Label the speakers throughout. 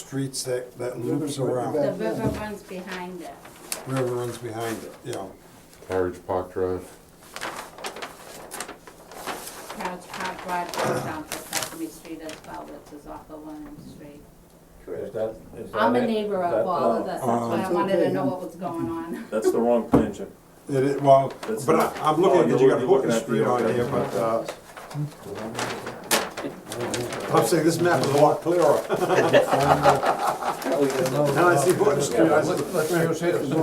Speaker 1: streets that, that loops
Speaker 2: River's
Speaker 1: around.
Speaker 2: right in the
Speaker 3: The river runs behind it.
Speaker 1: River runs behind it, you know.
Speaker 4: Carriage Park Drive.
Speaker 3: Couch Park Drive goes down to Sesame Street as well, which is off of William Street.
Speaker 5: Is that, is that?
Speaker 3: I'm a
Speaker 5: it?
Speaker 3: neighbor
Speaker 5: That-
Speaker 3: of
Speaker 1: Oh,
Speaker 3: all of
Speaker 5: no,
Speaker 3: this, that's why I
Speaker 1: um,
Speaker 2: it's
Speaker 3: wanted to
Speaker 2: okay,
Speaker 3: know
Speaker 2: huh?
Speaker 3: what was going on.
Speaker 5: That's the wrong plan, Jim.
Speaker 1: It, is- well,
Speaker 5: That's
Speaker 1: but
Speaker 5: not-
Speaker 1: I- I'm
Speaker 5: Oh,
Speaker 1: looking, at
Speaker 5: you're
Speaker 1: you got
Speaker 5: looking- looking
Speaker 1: Horton
Speaker 5: at
Speaker 1: Street
Speaker 5: the-
Speaker 1: on
Speaker 5: okay.
Speaker 1: here, but, uh, I'm saying this map is a lot clearer. Now I see Horton Street, I see,
Speaker 2: Let's use his. We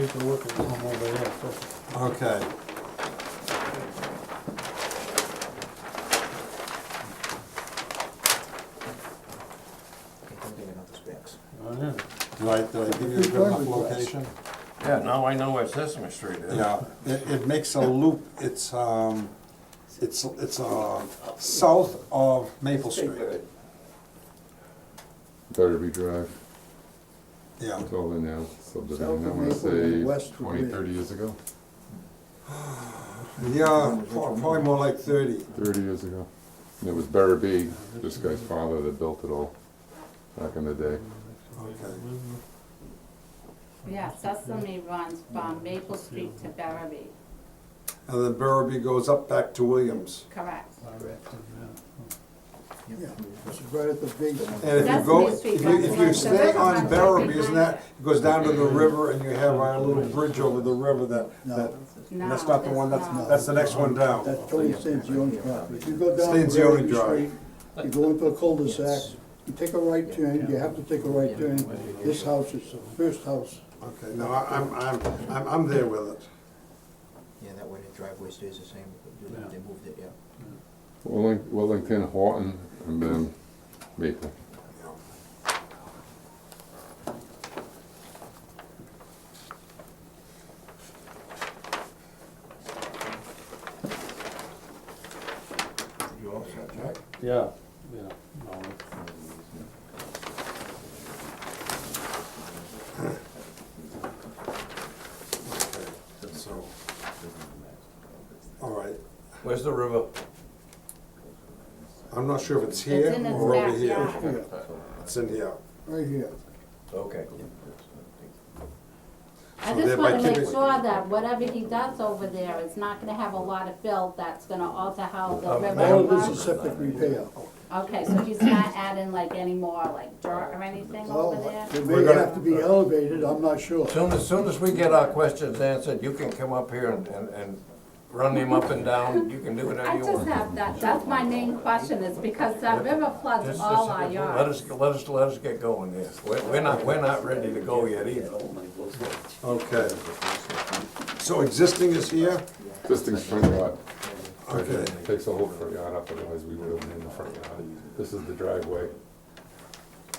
Speaker 2: need to look at one over there first.
Speaker 1: okay. Did I, did I give you a good enough location?
Speaker 6: Yeah, now I know where Sesame Street is.
Speaker 1: Yeah, it, it makes a loop, it's, um, it's, it's, uh, south of Maple Street.
Speaker 4: Batterby Drive,
Speaker 1: Yeah,
Speaker 4: it's all in now,
Speaker 2: South
Speaker 4: subdivision,
Speaker 2: of
Speaker 4: I wanna
Speaker 2: Maple and west
Speaker 4: say
Speaker 2: of
Speaker 4: twenty,
Speaker 2: Maple.
Speaker 4: thirty years ago,
Speaker 1: yeah, pro- probably more like thirty.
Speaker 4: thirty years ago. And it was Barabee, this guy's father that built it all back in the day.
Speaker 1: Okay. Mm-hmm.
Speaker 3: Yeah, Sesame runs from Maple Street to Barrowby,
Speaker 1: And then Barabee goes up back to Williams.
Speaker 3: correct.
Speaker 2: Yeah, it's right at the big one.
Speaker 1: And if you go,
Speaker 3: Sesame Street
Speaker 1: if you, if you
Speaker 3: runs-
Speaker 1: stay
Speaker 3: runs
Speaker 1: on
Speaker 3: right
Speaker 1: Barabee,
Speaker 3: behind
Speaker 1: isn't that,
Speaker 3: it.
Speaker 1: it goes down to the river and you have our little bridge over the river that, that,
Speaker 2: No,
Speaker 3: No,
Speaker 1: that's not the one, that's, that's the next one down.
Speaker 2: that totally stands the only property. If you go down
Speaker 1: Stands the only
Speaker 2: Prairie
Speaker 1: drive.
Speaker 2: Street, You go into a cul-de-sac, you take a right turn, you have to take a right turn. This house is the first house.
Speaker 1: Okay, no, I- I'm, I'm, I'm, I'm there with it.
Speaker 7: Yeah, that way the driveway stays the same, they moved it, yeah.
Speaker 4: Welling- Wellington, Horton, and then Maple.
Speaker 5: You all set, Jack?
Speaker 6: Yeah, yeah. no,
Speaker 1: Okay, so, all right,
Speaker 6: Where's the river?
Speaker 1: I'm not sure if it's here
Speaker 3: It's in its
Speaker 1: or over here.
Speaker 3: backyard.
Speaker 2: Here,
Speaker 1: It's in here.
Speaker 2: right here.
Speaker 5: Okay.
Speaker 3: I
Speaker 1: So
Speaker 3: just
Speaker 1: thereby
Speaker 3: wanna make
Speaker 1: keeping-
Speaker 3: sure that whatever he does over there is not gonna have a lot of fill that's gonna alter how
Speaker 1: Oh,
Speaker 3: the river
Speaker 2: All of this
Speaker 3: runs.
Speaker 2: is septic repair.
Speaker 3: Okay, so he's not adding like any more like dirt or anything
Speaker 1: Oh,
Speaker 3: over
Speaker 2: Well,
Speaker 3: there?
Speaker 2: it
Speaker 1: We're
Speaker 2: may
Speaker 1: gonna-
Speaker 2: have to be elevated, I'm not sure.
Speaker 6: Soon as, soon as we get our questions answered, you can come up here and, and, and run them up and down, you can do whatever
Speaker 3: I
Speaker 6: you
Speaker 3: just
Speaker 6: want.
Speaker 3: have that, that's my main question is because that river floods
Speaker 6: Just-
Speaker 3: all
Speaker 6: just-
Speaker 3: our
Speaker 6: Let
Speaker 3: yards.
Speaker 6: us, let us, let us get going here. We're, we're not, we're not ready to go yet either.
Speaker 1: Okay. So existing is here?
Speaker 4: This thing's front yard.
Speaker 1: Okay.
Speaker 4: Takes the whole front yard up, otherwise we would have been in the front yard. This is the driveway,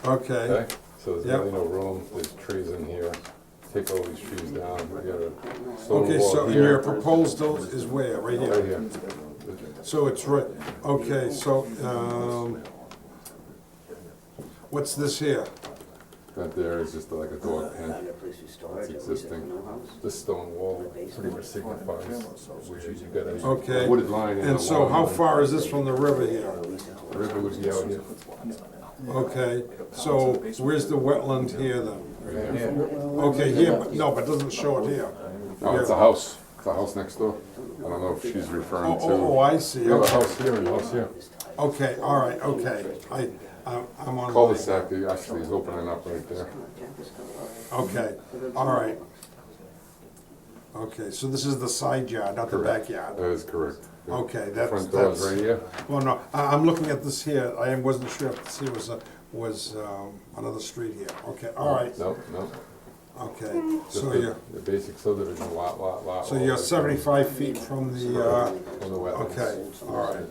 Speaker 1: Okay.
Speaker 4: okay? So there's
Speaker 1: Yep.
Speaker 4: really no room, there's trees in here. Take all these trees down, we got a stone
Speaker 1: Okay, so
Speaker 4: wall
Speaker 1: and your
Speaker 4: here.
Speaker 1: proposal is where? Right
Speaker 4: Right
Speaker 1: here?
Speaker 4: here.
Speaker 1: So it's right, okay, so, um, what's this here?
Speaker 4: That there is just like a dog pen.
Speaker 8: It's
Speaker 4: existing. The stone wall pretty much signifies where you got a
Speaker 1: Okay.
Speaker 4: a wooded line.
Speaker 1: And
Speaker 4: a
Speaker 1: so
Speaker 4: long
Speaker 1: how
Speaker 4: line.
Speaker 1: far is this from the river here?
Speaker 4: The River would be out here.
Speaker 1: Okay, so where's the wetland here then?
Speaker 4: right here.
Speaker 6: Yeah.
Speaker 1: Okay, here, but, no, but doesn't show it here.
Speaker 4: No, Oh, it's a house, it's a house next door. I don't know if she's
Speaker 1: Oh,
Speaker 4: referring
Speaker 1: oh, oh,
Speaker 4: to.
Speaker 1: I see,
Speaker 4: We have a
Speaker 1: okay,
Speaker 4: house here and a house here.
Speaker 1: okay, all right, okay, I, I'm I'm on.
Speaker 4: Cul-de-sac that actually is opening up right there.
Speaker 1: Okay, all right. Okay, so this is the side yard, not the
Speaker 4: Correct.
Speaker 1: backyard.
Speaker 4: That is correct. The
Speaker 1: Okay, that's,
Speaker 4: Front door is
Speaker 1: that's.
Speaker 4: right here.
Speaker 1: Well, no, I, I'm looking at this here, I wasn't sure if this here was, a- was, um, another street here, okay, all right,
Speaker 4: No, no.
Speaker 1: okay,
Speaker 4: Just
Speaker 1: so
Speaker 4: the-
Speaker 1: you're,
Speaker 4: The basic subdivision, lot, lot, lot.
Speaker 1: so
Speaker 4: lot,
Speaker 1: you're
Speaker 4: lot.
Speaker 1: seventy-five feet from the, uh,
Speaker 4: On the wetlands.
Speaker 1: okay, all right,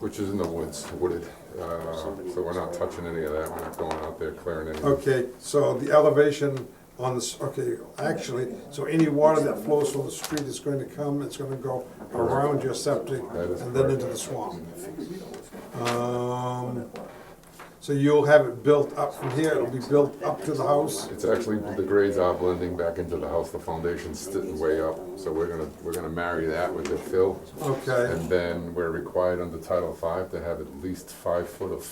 Speaker 4: Which is in the woods, wooded, uh, so we're not touching any of that, we're not going out there clearing anything.
Speaker 1: okay, so the elevation on this, okay, actually, so any water that flows from the street is going to come, it's gonna go around your septic
Speaker 4: That is
Speaker 1: and then into the swamp. Um, so you'll have it built up from here, it'll be built up to the house?
Speaker 4: It's actually, the grades are blending back into the house, the foundation's sitting way up, so we're gonna, we're gonna marry that with the fill.
Speaker 1: Okay.
Speaker 4: And then we're required under Title V to have at least five foot of